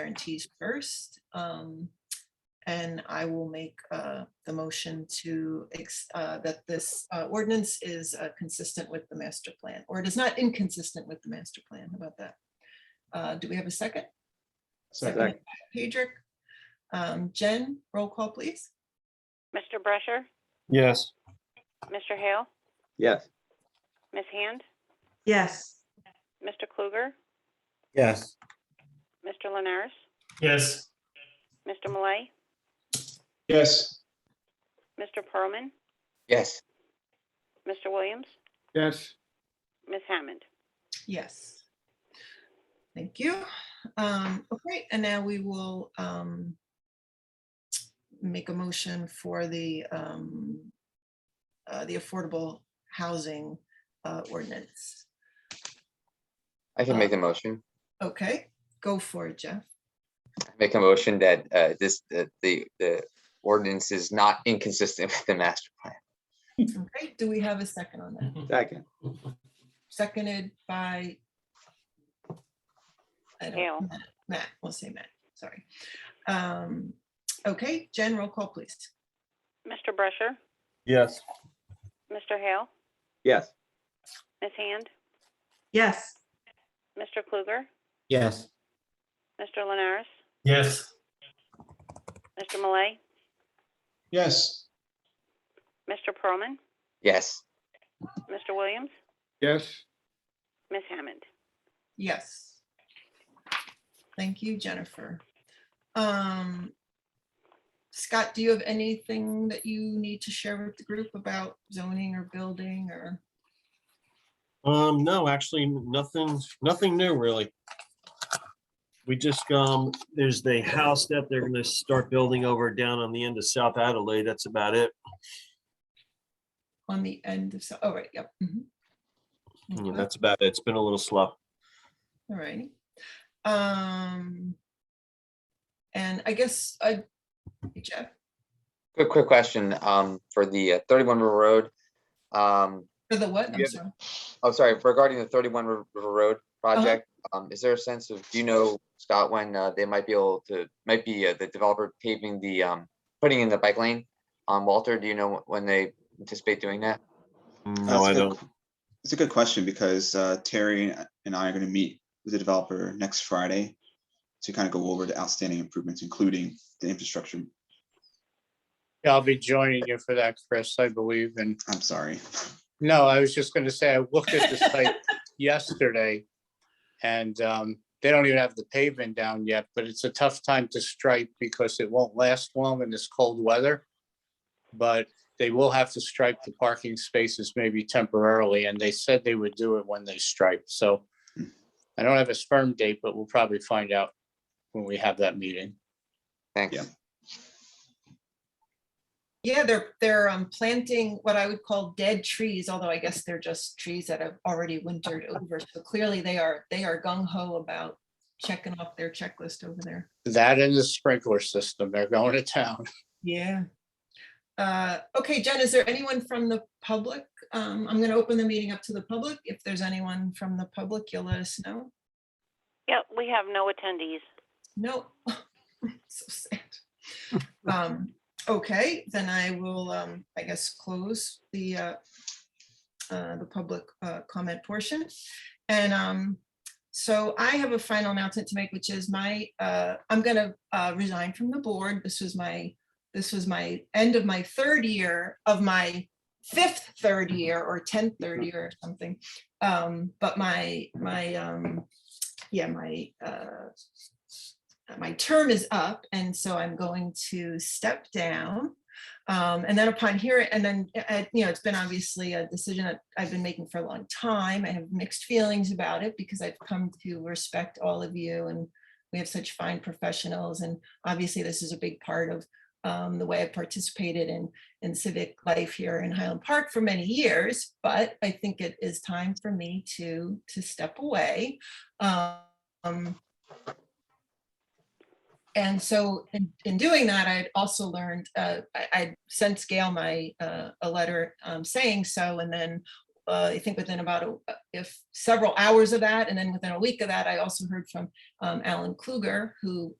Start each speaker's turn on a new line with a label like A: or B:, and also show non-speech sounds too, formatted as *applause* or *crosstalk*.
A: guarantees first. Um, and I will make, uh, the motion to, ex- uh, that this, uh, ordinance is, uh, consistent with the master plan, or it is not inconsistent with the master plan, How about that. Uh, do we have a second?
B: Second.
A: Pedrick, um, Jen, roll call, please.
C: Mr. Brescher,
B: Yes.
C: Mr. Hale,
B: Yes.
C: Ms. Hand,
D: yes,
C: Mr. Kluger,
B: Yes.
C: Mr. Lenares,
E: yes,
C: Mr. Malay,
B: Yes.
C: Mr. Pearlman,
B: Yes.
C: Mr. Williams,
B: Yes.
C: Ms. Hammond.
A: Yes. Thank you. Um, okay, and now we will, um, make a motion for the, um, uh, the affordable housing, uh, ordinance.
F: I can make a motion.
A: Okay, go for it, Jeff.
F: Make a motion that uh, this, that the, the ordinance is not inconsistent *laughs* with the master plan.
A: Okay, do we have a second on that?
B: Second.
A: Seconded by I don't-
C: Hale.
A: Matt, we'll say Matt, sorry. Um, okay, Jen, roll call, please.
C: Mr. Brescher,
B: Yes.
C: Mr. Hale,
B: Yes.
C: Ms. Hand,
D: yes,
C: Mr. Kluger,
B: Yes.
C: Mr. Lenares,
E: yes,
C: Mr. Malay,
B: Yes.
C: Mr. Pearlman,
F: Yes,
C: Mr. Williams,
B: Yes.
C: Ms. Hammond.
A: Yes. Thank you, Jennifer. Um, Scott, do you have anything that you need to share with the group about zoning or building or?
G: Um, no, actually, nothing, nothing new really. We just, um, there's the house that they're gonna start building over down on the end of South Adelaide. That's about it.
A: On the end of, so, oh, right, yep. mhm.
G: Yeah,
A: Okay,
G: Mm, that's about it. It's been a little slow.
A: All righty. Um, and I guess, uh, Jeff,
F: quick, quick question, um, for the uh, thirty-one River Road. Um,
A: for the what? I'm
F: Yeah.
A: sorry.
F: oh, sorry, regarding the thirty-one River River Road project, um, is there a sense of, do you know, Scott, when, uh, they might be able to, might be, uh, the developer paving the, um, putting in the bike lane? Um, Walter, do you know when they anticipate doing that?
G: No, I
H: That's a good
G: don't.
H: qu- It's a good question because uh, Terry and I are going to meet with the developer next Friday to kind of go over the outstanding improvements, including the infrastructure.
I: Yeah, I'll be joining you for that, Chris, I believe. And
H: I'm sorry.
I: no, I was just gonna say, I looked at the site yesterday. And um, they don't even have the pavement down yet, but it's a tough time to stripe because it won't last long in this cold weather. But they will have to stripe the parking spaces maybe temporarily, and they said they would do it when they stripe, so. I don't have a firm date, but we'll probably find out when we have that meeting.
F: Thanks.
H: Yeah.
A: Yeah, they're, they're um, planting what I would call dead trees, although I guess they're just trees that have already wintered over. So clearly they are, they are gung ho about checking off their checklist over there.
I: That and the sprinkler system, they're going to town.
A: Yeah. Uh, Okay, Jen, is there anyone from the public? Um, I'm going to open the meeting up to the public. If there's anyone from the public, you'll let us know.
C: Yep, we have no attendees.
A: No. *laughs* So sad. Um, okay, then I will, um, I guess, close the uh, uh, the public uh, comment portion. And um, so I have a final announcement to make, which is my, uh, I'm gonna uh, resign from the board. This was my, this was my end of my third year of my fifth third year or tenth third year or something. Um, but my, my, um, yeah, my uh, uh, my term is up and so I'm going to step down. Um, and then upon here, and then, uh, uh, you know, it's been obviously a decision that I've been making for a long time. I have mixed feelings about it because I've come to respect all of you and we have such fine professionals. And obviously this is a big part of um, the way I participated in, in civic life here in Highland Park for many years, but I think it is time for me to, to step away. Um, and so in, in doing that, I'd also learned, uh, I, I sent Gail my, uh, a letter, um, saying so, and then uh, I think within about, a- if several hours of that, and then within a week of that, I also heard from um, Alan Kluger, who